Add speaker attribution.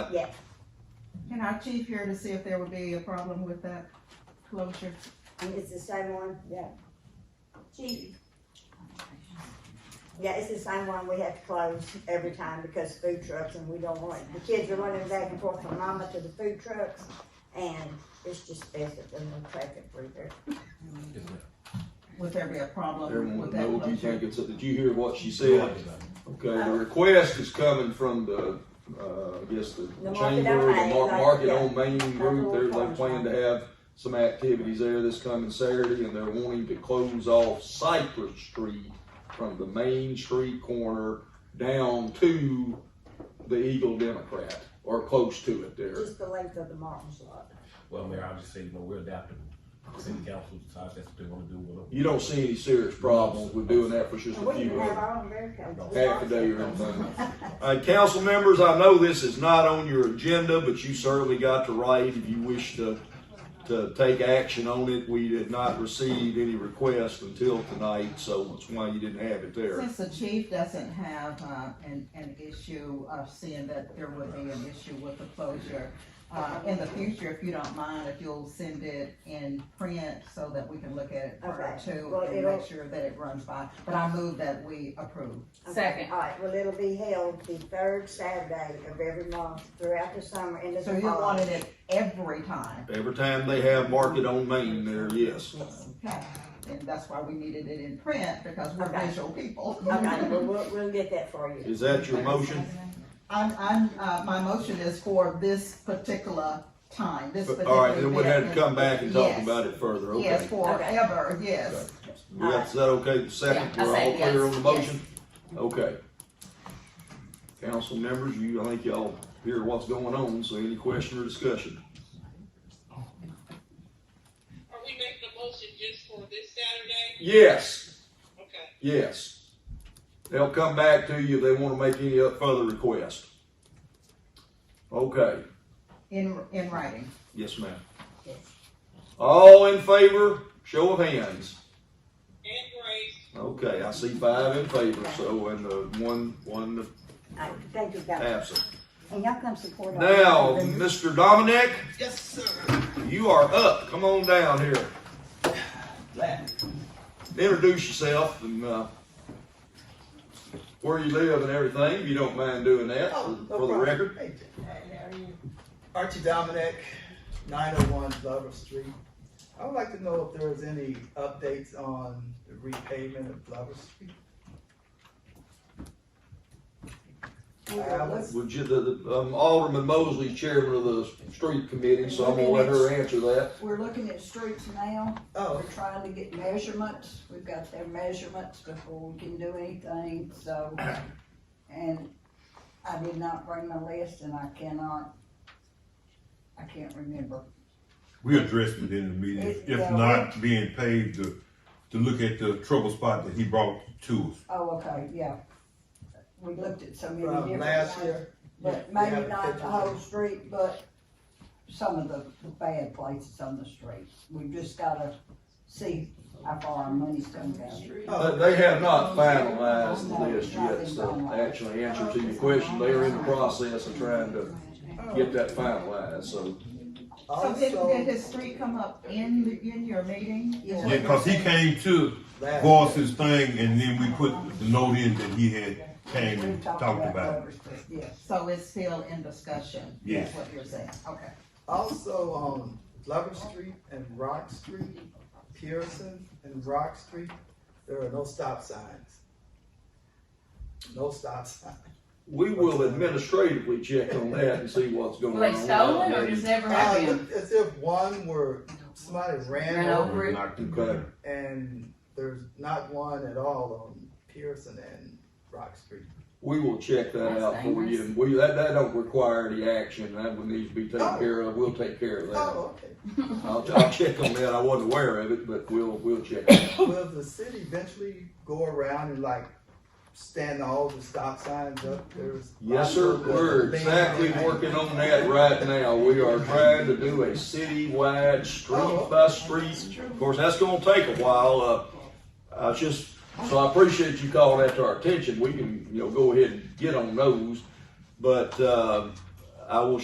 Speaker 1: Yes.
Speaker 2: And our chief here to see if there would be a problem with that closure.
Speaker 1: And it's the same one, yeah. Gee. Yeah, it's the same one we have to close every time because food trucks and we don't want, it. the kids are running back and forth from mama to the food trucks. And it's just best that there's no traffic through there.
Speaker 2: Would there be a problem
Speaker 3: Everyone
Speaker 2: with that
Speaker 3: know what you think,
Speaker 2: closure?
Speaker 3: it's, did you hear what she said? Okay, the request is coming from the, uh, I guess the
Speaker 1: The Market
Speaker 3: chamber,
Speaker 1: on
Speaker 3: the
Speaker 1: Main,
Speaker 3: Mar-
Speaker 1: like,
Speaker 3: Market
Speaker 1: yeah.
Speaker 3: on Main
Speaker 1: Market
Speaker 3: Group, they're,
Speaker 1: on
Speaker 3: they plan to have some activities there this coming Saturday, and they're wanting to close off Cypress Street from the main street corner down to the Eagle Democrat, or close to it there.
Speaker 1: Just the length of the Martin's lot.
Speaker 4: Well, Mayor, I just say, you know, we're adaptable. City council decides that's what they wanna do with it.
Speaker 3: You don't see any serious problems with doing that for just
Speaker 1: And
Speaker 3: a
Speaker 1: we can
Speaker 3: few
Speaker 1: have
Speaker 3: hours.
Speaker 1: our own barricades.
Speaker 3: half a day or anything. All right, Uh, council members, I know this is not on your agenda, but you certainly got the right if you wish to, to take action on it. We did not receive any requests until tonight, so that's why you didn't have it there.
Speaker 2: Since the chief doesn't have, uh, an, an issue of seeing that there would be an issue with the closure, uh, in the future, if you don't mind, if you'll send it in print so that we can look at it prior
Speaker 1: Okay.
Speaker 2: to
Speaker 1: Well,
Speaker 2: and
Speaker 1: it'll-
Speaker 2: make sure that it runs by. But I move that we approve.
Speaker 1: Second. All right, well, it'll be held the third Saturday of every month throughout the summer and the
Speaker 2: So you
Speaker 1: fall.
Speaker 2: wanted it every time,
Speaker 3: Every time they have market on Main there, yes.
Speaker 2: okay? And that's why we needed it in print, because we're
Speaker 1: Okay.
Speaker 2: visual people.
Speaker 1: Okay, well, we'll, we'll get that for you.
Speaker 3: Is that your motion?
Speaker 2: I'm, I'm, uh, my motion is for this particular time, this particular.
Speaker 3: All right, then we'd have to
Speaker 2: event.
Speaker 3: come back and talk
Speaker 2: Yes.
Speaker 3: about it further,
Speaker 2: Yes,
Speaker 3: okay?
Speaker 2: forever, yes.
Speaker 3: We got- Is that okay, the second,
Speaker 5: Yeah, I
Speaker 3: we're all
Speaker 5: say yes,
Speaker 3: clear on the
Speaker 5: yes.
Speaker 3: motion? Okay. Council members, you, I think y'all hear what's going on, so any question or discussion?
Speaker 6: Are we making a motion just for this Saturday?
Speaker 3: Yes,
Speaker 6: Okay.
Speaker 3: yes. They'll come back to you if they wanna make any other further request. Okay,
Speaker 2: In, in writing.
Speaker 3: yes, ma'am.
Speaker 1: Yes.
Speaker 3: All in favor, show of hands.
Speaker 6: And Grace,
Speaker 3: Okay, I see five in favor, so, and, uh, one, one
Speaker 1: All right, thank you, guys.
Speaker 3: absent.
Speaker 1: And y'all come support us.
Speaker 3: Now, Mr. Dominic? Yes, sir. You are up, come on down here. Introduce yourself and, uh, where you live and everything, if you don't mind doing that,
Speaker 7: Oh,
Speaker 3: for
Speaker 7: no
Speaker 3: for the
Speaker 7: problem.
Speaker 3: record.
Speaker 7: Hey, Hey, how are you? Archie Dominic, nine oh one Glover Street. I would like to know if there was any updates on the repayment of Glover Street. Alex?
Speaker 3: Would you, the, the, um, Alderman Mosley's chairman of the street committee, so I'm gonna let her answer that.
Speaker 8: We're looking at streets now. We're
Speaker 7: Oh,
Speaker 8: trying to get measurements. We've got their measurements before we can do anything, so. And I did not bring my list and I cannot, I can't remember.
Speaker 9: We addressed it in the meeting,
Speaker 8: It-
Speaker 9: if
Speaker 8: yeah.
Speaker 9: not being paid to, to look at the trouble spot that he brought to us.
Speaker 8: Oh, okay, yeah. We looked at so many
Speaker 7: from
Speaker 8: different
Speaker 7: uh, last
Speaker 8: ones.
Speaker 7: year?
Speaker 8: But
Speaker 7: We
Speaker 8: maybe
Speaker 7: haven't
Speaker 8: not the
Speaker 7: taken-
Speaker 8: whole street, but some of the the bad places on the street. We've just gotta see how far our money's gonna go.
Speaker 3: But
Speaker 7: Oh,
Speaker 3: Uh, they have not finalized the list yet, so actually answer to your question, they are in the process of trying to get that finalized, so.
Speaker 2: Oh. So did, did
Speaker 7: also,
Speaker 2: his street come up in, the- in your meeting?
Speaker 8: Yes,
Speaker 9: Yeah, cause he came to voice
Speaker 7: last,
Speaker 9: his thing and then we put the note in that he had came and talked about.
Speaker 8: Glover Street, Yes.
Speaker 2: So it's still in discussion, is
Speaker 9: Yes.
Speaker 2: what you're saying, okay.
Speaker 7: also, um, Glover Street and Rock Street, Pearson and Rock Street, there are no stop signs. No stop signs.
Speaker 3: We will administratively check on that and see what's going on.
Speaker 5: Were they stolen or just never
Speaker 7: Uh,
Speaker 5: happened?
Speaker 7: as if one were, somebody ran
Speaker 5: Ran
Speaker 7: over
Speaker 5: over. Over it.
Speaker 9: Knocked him down.
Speaker 7: and there's not one at all on Pearson and Rock Street.
Speaker 3: We will check that
Speaker 5: That's
Speaker 3: out for you,
Speaker 5: dangerous.
Speaker 3: and we, that, that don't require any action, that would need to be taken care of, we'll take care of that.
Speaker 7: Oh, okay.
Speaker 3: I'll, I'll check on that, I wasn't aware of it, but we'll, we'll check. it out.
Speaker 7: Will the city eventually go around and like stand all the stop signs up? There's.
Speaker 3: Yes, sir, we're exactly working on that right now, we are trying to do a citywide, street by street. Of course, that's gonna take a while, uh, I was just, so I appreciate you calling that to our attention, we can, you know, go ahead and get on those. But, uh, I will